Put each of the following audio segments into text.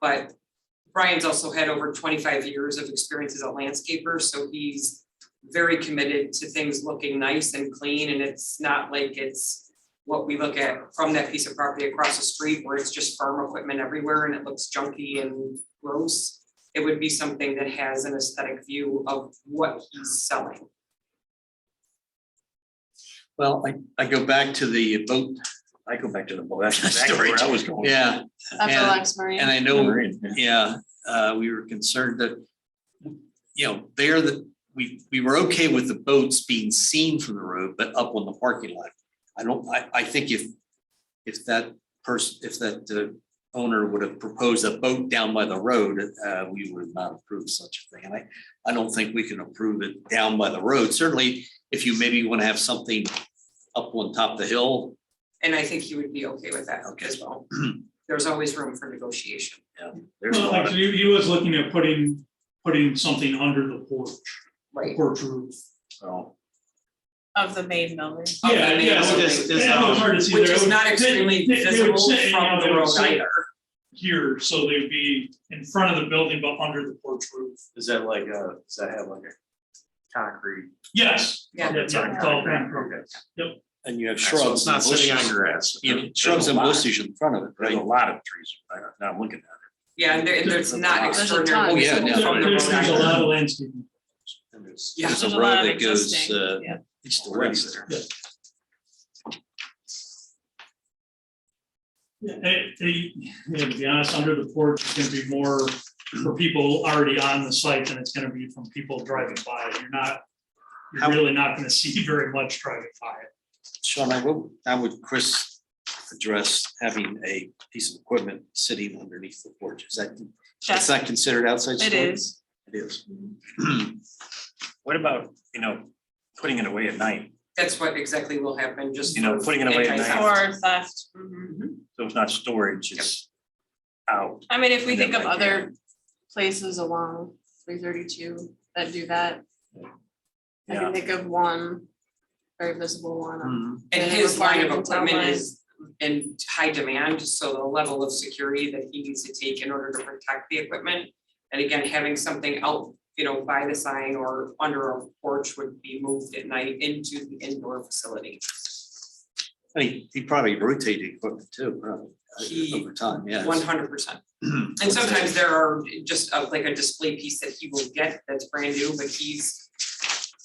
but Brian's also had over twenty-five years of experience as a landscaper, so he's very committed to things looking nice and clean, and it's not like it's what we look at from that piece of property across the street where it's just farm equipment everywhere and it looks junky and gross. It would be something that has an aesthetic view of what he's selling. Well, I, I go back to the boat, I go back to the boat. That's exactly Storage. where I was going. yeah, Of the And- Lex Marine. and I know, Marine, yeah. yeah, uh, we were concerned that, you know, there that, we, we were okay with the boats being seen from the road, but up on the parking lot. I don't, I, I think if, if that person, if that uh, owner would have proposed a boat down by the road, uh, we would have not approved such a thing. And I, I don't think we can approve it down by the road. Certainly, if you maybe want to have something up on top of the hill, And I think he would be okay with that as well. There's always room for negotiation. There's a Well, lot of, actually, he was looking at putting, putting something under the porch, Right. porch roof. well, Of the main building. Okay, Yeah, yeah, yeah, so this- It's hard to see Which there. is not They- extremely they- they would visible sit, you know, from they the would road sit either. Here, so they'd be in front of the building, but under the porch roof. is that like a, does that have like a concrete? Yes. Yeah. It's all concrete. Okay. And you have So it's shrubs not and sitting on bushes. grass. You know, There's shrubs a and lot. bushes in front of it, There's right? a lot of trees. right Now I'm looking at it. Yeah, and there, and there's not There's a ton. extraordinary. Oh, yeah, visible no. from the There's, there's a road either. lot of landscaping. And there's- Yeah. There's There's a a lot road of that goes, existing, uh, yeah. east to Already west. there. It- it- you know, to be honest, under the porch is gonna be more for people already on the site than it's gonna be from people driving by. You're not, you're How- really not gonna see very much driving by it. Sean, I would, I would Chris address having a piece of equipment sitting underneath the porch. Is that, that's That's- not considered outside It storage? is. It is. What about, you know, putting it away at night? That's what exactly will happen, just. You know, for putting it away at anti-theft. night. Or theft. mhm. So it's not storage, it's out. I mean, if we And think then of like, uh, yeah. other places along three thirty-two that do that. I Yeah. can think of one, very visible one. Hmm. on- Mm-hmm. And And his line of requirements on equipment mine. is in high demand, so the level of security that he needs to take in order to protect the equipment. And again, having something out, you know, by the sign or under a porch would be moved at night into the indoor facility. I mean, he probably rotated equipment too, probably, uh, He- over time, yeah. One hundred percent. And sometimes there are just uh, like a display piece that he will get that's brand new, but he's,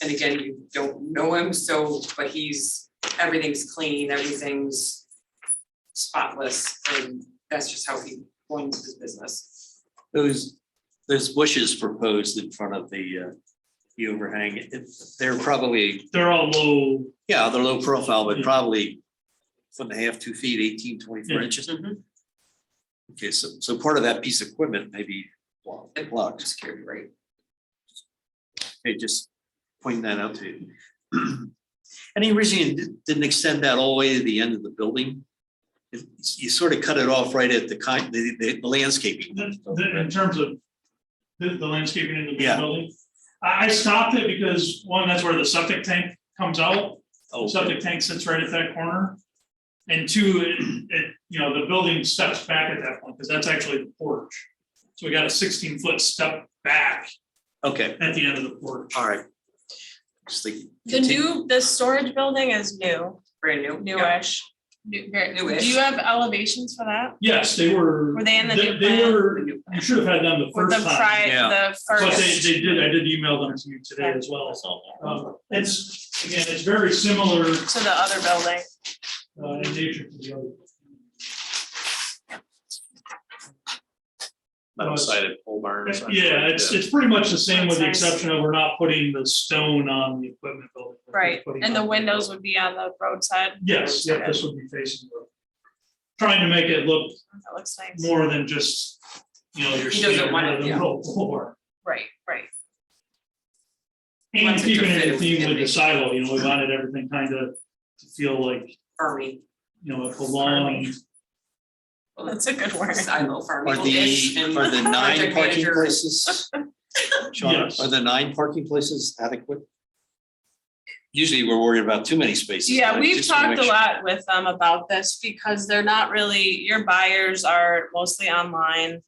and again, you don't know him, so, but he's, everything's clean, everything's spotless, and that's just how he runs his business. Those, those bushes proposed in front of the, uh, the overhang, it- they're probably They're all low, Yeah, they're low profile, but Yeah. probably foot and a half, two feet, 18, 24 Mm-hmm, Yeah. inches. Okay, so, so part of that piece of equipment may be And blocked. Security, right? Okay, just pointing that out to you. Any reason you di- didn't extend that all the way to the end of the building? It's- You sort of cut it off right at the kind, the, the landscaping. the, the, in terms of the, the landscaping in the main Yeah. building. I, I stopped it because, one, that's where the septic tank comes out. Oh, Subject tank sits right at that corner. And two, it, it, you know, the building steps back at that point, because that's actually the porch. So we got a sixteen foot step back Okay, at the end of the porch. all right. Just like. The new, the storage building is new, Brand new. yeah. newish. New, very, Newish. do you have elevations for that? Yes, they were. Were they in the They new they plan? were, you should have had them the With first the time. pri- the But they, first, they did, I did email them to you today as well, so. um, It's, again, it's very similar to the other building. uh, in nature to the other. Metal sided pole barn. or something like Yeah, it's, that. it's pretty much the same with the That's nice. exception of we're not putting the stone on the equipment building. We're Right, putting and the on- windows would be on the roadside. Yes, yeah, this would be facing the, trying to make it look That looks nice. more than just, you know, your He doesn't standard want it, yeah. metal floor. Right, right. And Wants it to keeping it fit in theme with within the the- silo, you know, we wanted everything kind of to feel like, Farming, you know, it belonged. That's a good word. silo farming. Are the, are the nine project parking manager. places? Sean, Yes. are the nine parking places adequate? Usually we're worried about too many spaces. but Yeah, I we've just wanna talked a um, make lot with them about this because they're not really, your buyers are mostly online.